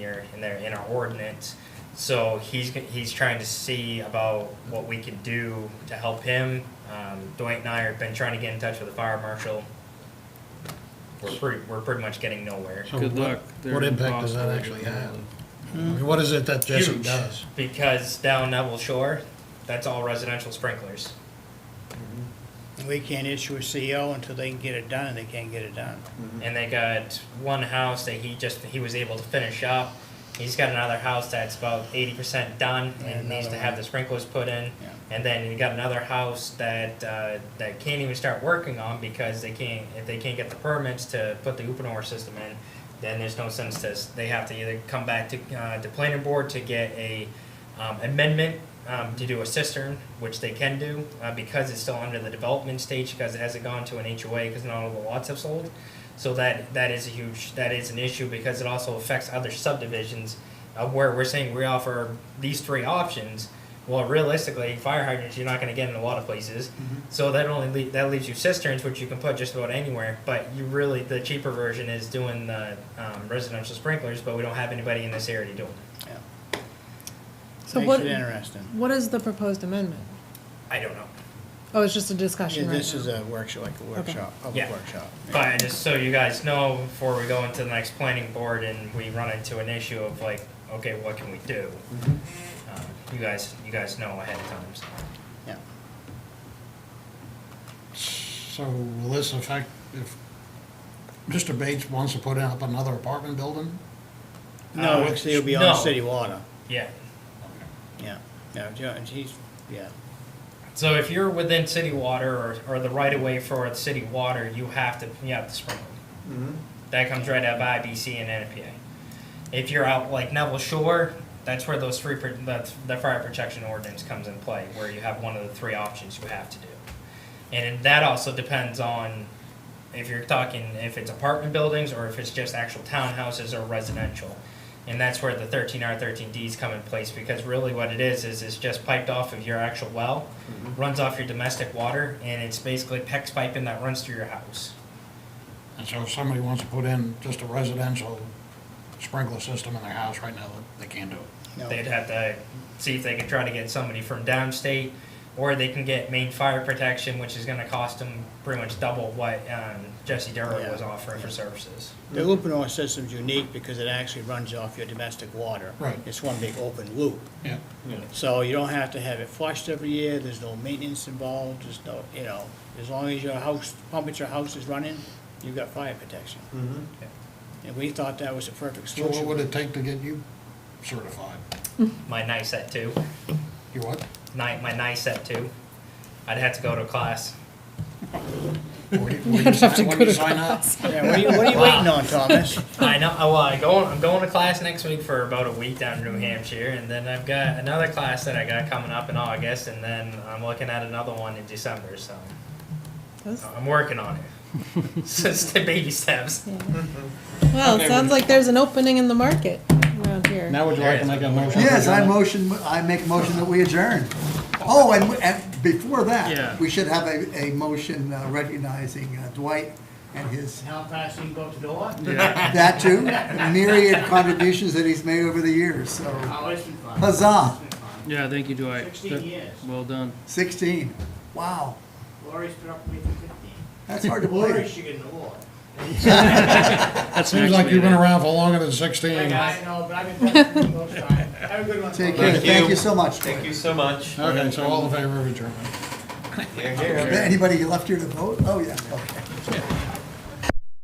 here in there in our ordinance. So he's, he's trying to see about what we can do to help him. Um, Dwight and I have been trying to get in touch with the fire marshal. We're pretty, we're pretty much getting nowhere. So Good Oh, what- luck. They're What impact does that impossible actually to have? handle. I mean, What is it that Jessup Huge. does? Because down Neville Shore, that's all residential sprinklers. We can't issue a CO until they can get it done, and they can't get it done. Mm-hmm. And they got one house that he just, he was able to finish up. He's got another house that's about eighty percent done and And needs to another have one. the sprinklers put in. Yeah. And then you got another house that, uh, that can't even start working on because they can't, if they can't get the permits to put the Uponor system in, then there's no sense to, s- they have to either come back to, uh, the planning board to get a, um, amendment, um, to do a cistern, which they can do, uh, because it's still under the development stage, because it hasn't gone to an HOA, because not all the lots have sold. So that, that is a huge, that is an issue because it also affects other subdivisions uh, where we're saying we offer these three options. Well, realistically, fire hydrants, you're not gonna get in a lot of places. So that only, lea- that leaves you cisterns, which you can put just about anywhere, but you really, the cheaper version is doing the, um, residential sprinklers, but we don't have anybody in this area doing it. Yeah. So Makes what- it interesting. What is the proposed amendment? I don't know. Oh, it's just a Yeah, discussion right This now. is a workshop, like a workshop, public Yeah. workshop. But just so you guys know, before we go into the next planning board and we run into an issue of like, okay, what can we do? Um, You guys, you guys know ahead of time, so. Yeah. So will this affect if Mr. Bates wants to put up another apartment building? No, Uh, because it'll be on no. city water, Yeah, yeah. No, Joe- and he's, yeah, so if you're within city water or, or the right of way for the city water, you have to, you have to sprinkle. That comes right out of IBC and NPA. If you're out like Neville Shore, that's where those three, pro- the, the fire protection ordinance comes in play, where you have one of the three options you have to do. And that also depends on if you're talking, if it's apartment buildings or if it's just actual townhouses or residential. And that's where the thirteen R thirteen Ds come in place, because really what it is, is it's just piped off of your actual well, Mm-hmm. runs off your domestic water, and it's basically PEX piping that runs through your house. And so if somebody wants to put in just a residential sprinkler system in their house right now, they can't do it. no. They'd have to see if they could try to get somebody from downstate, or they can get main fire protection, which is gonna cost them pretty much double what, um, Jesse Durwood was Yeah, offering for yeah. services. The Uponor system's unique because it actually runs off your domestic water. Right. It's one big open loop. Yeah. So you don't have to have it flushed every year, there's no maintenance involved, there's no, you know, as long as your house, pump at your house is running, you've got fire protection. And we thought that was a perfect So what would solution. it take to get you certified? My nice set too. You what? my, my NICET too. I'd have to go to class. Where do you- where do you sign- When do you sign up? Yeah, what are you, what are you waiting on, Thomas? I know. oh, Well, I go. I'm going to class next week for about a week down in New Hampshire, and then I've got another class that I got coming up in August, and then I'm looking at another one in December. So That's- I'm working on it. so it's the baby steps. Well, Okay, it sounds we- like there's an opening in the market around here. Now would you like to make a motion? Yes, I motion, I make a motion that we adjourn. Oh, and, and before Yeah. that, we should have a, a motion uh, recognizing uh, Dwight and his, Now passing vote to door? Yeah. that too, myriad contributions that he's made over the years, so Oh, huzzah, Yeah, thank you, Dwight. 16 That- years. Well done. sixteen, wow, Lori's been up with me for fifteen. that's hard to believe. should get an award. That's Seems next like you've been meeting. around for longer than sixteen. know, but I've been talking to you most times. Have a good one. Take care, thank you so much. Thank you so much. Okay, so all in favor of adjournment? Here, here. Anybody left here to vote? Oh, yeah.